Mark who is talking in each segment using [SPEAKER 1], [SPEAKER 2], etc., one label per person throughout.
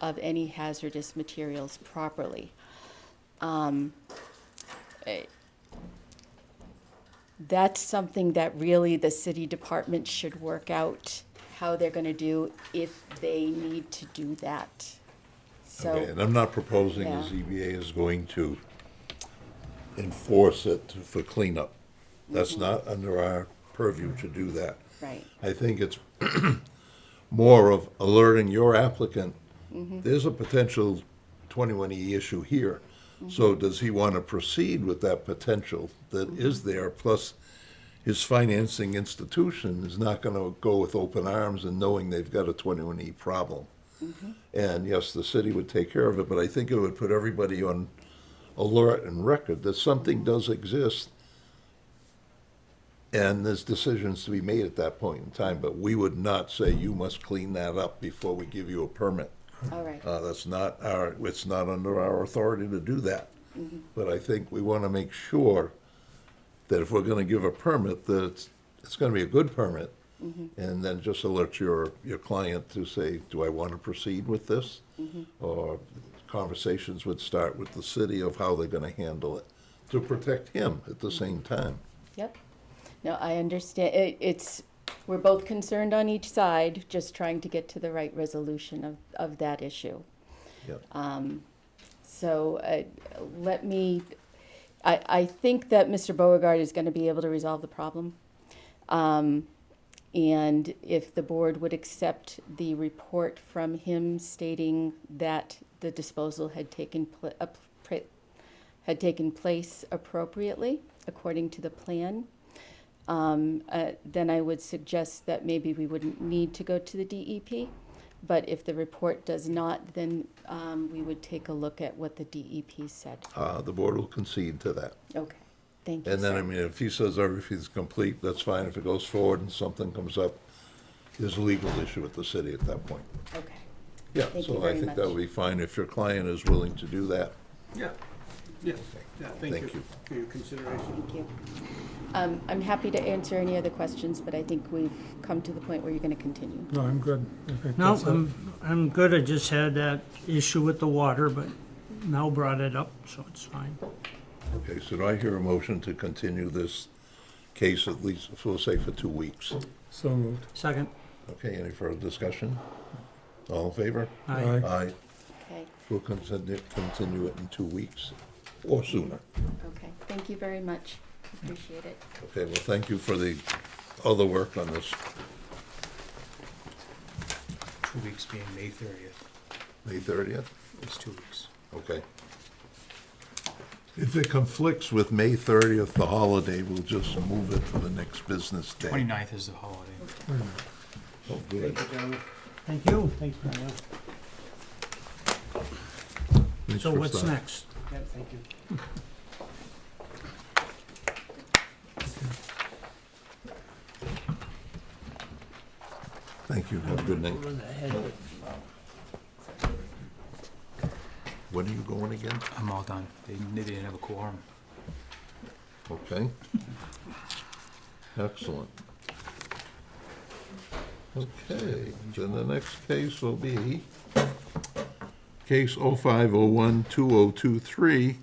[SPEAKER 1] of any hazardous materials properly. Um, eh, That's something that really the city department should work out how they're gonna do if they need to do that.
[SPEAKER 2] Okay,
[SPEAKER 1] So,
[SPEAKER 2] And I'm not proposing the
[SPEAKER 1] Yeah.
[SPEAKER 2] ZBA is going to enforce it for cleanup. That's not under our purview to do that.
[SPEAKER 1] Mm-hmm. right,
[SPEAKER 2] I think it's more of alerting your applicant, there's a potential 21E issue here. So does he want to proceed with that potential that is there? Plus, his financing institution is not going to go with open arms and knowing they've got a 21E problem. And yes, the city would take care of it, but I think it would put everybody on alert and record that something does exist and there's decisions to be made at that point in time, but we would not say you must clean that up before we give you a permit.
[SPEAKER 1] all right,
[SPEAKER 2] Uh, that's not our, it's not under our authority to do that. But I think we want to make sure that if we're going to give a permit, that it's, it's going to be a good permit. And then just alert your, your client to say, do I want to proceed with this? Or conversations would start with the city of how they're going to handle it, to protect him at the same time.
[SPEAKER 1] yep. No, I understand, it, it's, we're both concerned on each side, just trying to get to the right resolution of, of that issue.
[SPEAKER 2] Yep.
[SPEAKER 1] So uh, let me, I, I think that Mr. Beauregard is going to be able to resolve the problem. Um, And if the board would accept the report from him stating that the disposal had taken, uh, pl- a pr- had taken place appropriately according to the plan, um, uh, then I would suggest that maybe we wouldn't need to go to the DEP. But if the report does not, then um, we would take a look at what the DEP said.
[SPEAKER 2] Uh, the board will concede to that.
[SPEAKER 1] Okay, thank you,
[SPEAKER 2] And then, I
[SPEAKER 1] sir.
[SPEAKER 2] mean, if he says everything's complete, that's fine. If it goes forward and something comes up, there's a legal issue with the city at that point.
[SPEAKER 1] Okay,
[SPEAKER 2] Yeah,
[SPEAKER 1] Thank you
[SPEAKER 2] so I
[SPEAKER 1] very
[SPEAKER 2] think that
[SPEAKER 1] much.
[SPEAKER 2] would be fine if your client is willing to do that.
[SPEAKER 3] Yeah, yeah, yeah,
[SPEAKER 2] Thank
[SPEAKER 3] thank
[SPEAKER 2] you.
[SPEAKER 3] you for your consideration.
[SPEAKER 1] thank you. Um, I'm happy to answer any other questions, but I think we've come to the point where you're going to continue.
[SPEAKER 4] No, I'm good. I think
[SPEAKER 5] No,
[SPEAKER 4] that's it.
[SPEAKER 5] I'm, I'm good, I just had that issue with the water, but Mel brought it up, so it's fine.
[SPEAKER 2] Okay, so do I hear a motion to continue this case at least, we'll say for two weeks?
[SPEAKER 4] So moved.
[SPEAKER 5] Second,
[SPEAKER 2] Okay, any further discussion? All in favor?
[SPEAKER 5] aye.
[SPEAKER 2] Aye.
[SPEAKER 1] Okay,
[SPEAKER 2] We'll continue, continue it in two weeks or sooner.
[SPEAKER 1] okay, thank you very much, appreciate it.
[SPEAKER 2] Okay, well, thank you for the other work on this,
[SPEAKER 3] Two weeks being May thirtieth,
[SPEAKER 2] May thirtieth?
[SPEAKER 3] it's two weeks.
[SPEAKER 2] Okay. If it conflicts with May 30th, the holiday, we'll just move it to the next business day.
[SPEAKER 3] Twenty-ninth is the holiday.
[SPEAKER 2] Oh, good.
[SPEAKER 5] Thank you. Thank you.
[SPEAKER 2] Thanks
[SPEAKER 5] So
[SPEAKER 2] for
[SPEAKER 5] what's
[SPEAKER 2] stopping.
[SPEAKER 5] next?
[SPEAKER 3] Yeah, thank you.
[SPEAKER 2] Thank you, have a good night.
[SPEAKER 5] Over the head.
[SPEAKER 2] When are you going again?
[SPEAKER 3] I'm all done. They, they didn't have a quorum.
[SPEAKER 2] Okay. Excellent. Okay, then the next case will be case 05012023.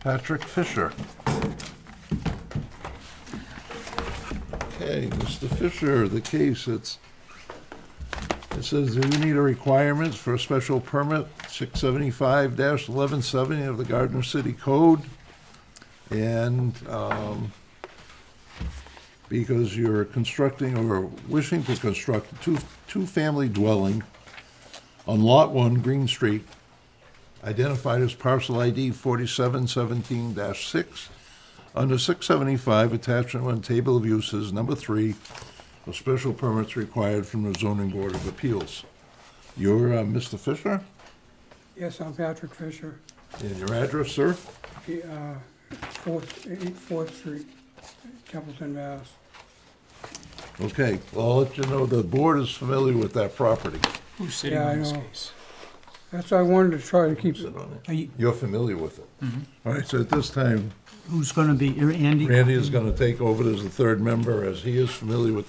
[SPEAKER 2] Patrick Fisher. Okay, Mr. Fisher, the case, it's it says, do we need a requirements for a special permit, six seventy-five eleven seventy of the Gardner City Code? And, um, because you're constructing or wishing to construct a two, two-family dwelling on Lot One, Green Street, identified as parcel ID forty-seven seventeen six, under six seventy-five, attachment one, table of uses, number three, of special permits required from the zoning board of appeals. You're uh, Mr. Fisher,
[SPEAKER 6] Yes, I'm Patrick Fisher,
[SPEAKER 2] and your address, sir?
[SPEAKER 6] eh, uh, Fourth, eight Fourth Street, Templeton, Mass.
[SPEAKER 2] Okay, well, I'll let you know the board is familiar with that property.
[SPEAKER 3] Who's sitting
[SPEAKER 6] Yeah, I
[SPEAKER 3] on this
[SPEAKER 6] know.
[SPEAKER 3] case?
[SPEAKER 6] That's why I wanted to try to keep it.
[SPEAKER 2] Sit on
[SPEAKER 5] Are you-
[SPEAKER 2] it. You're familiar with it. All right, so at this time,
[SPEAKER 5] Who's gonna be, Andy?
[SPEAKER 2] Randy is gonna take over as the third member, as he is familiar with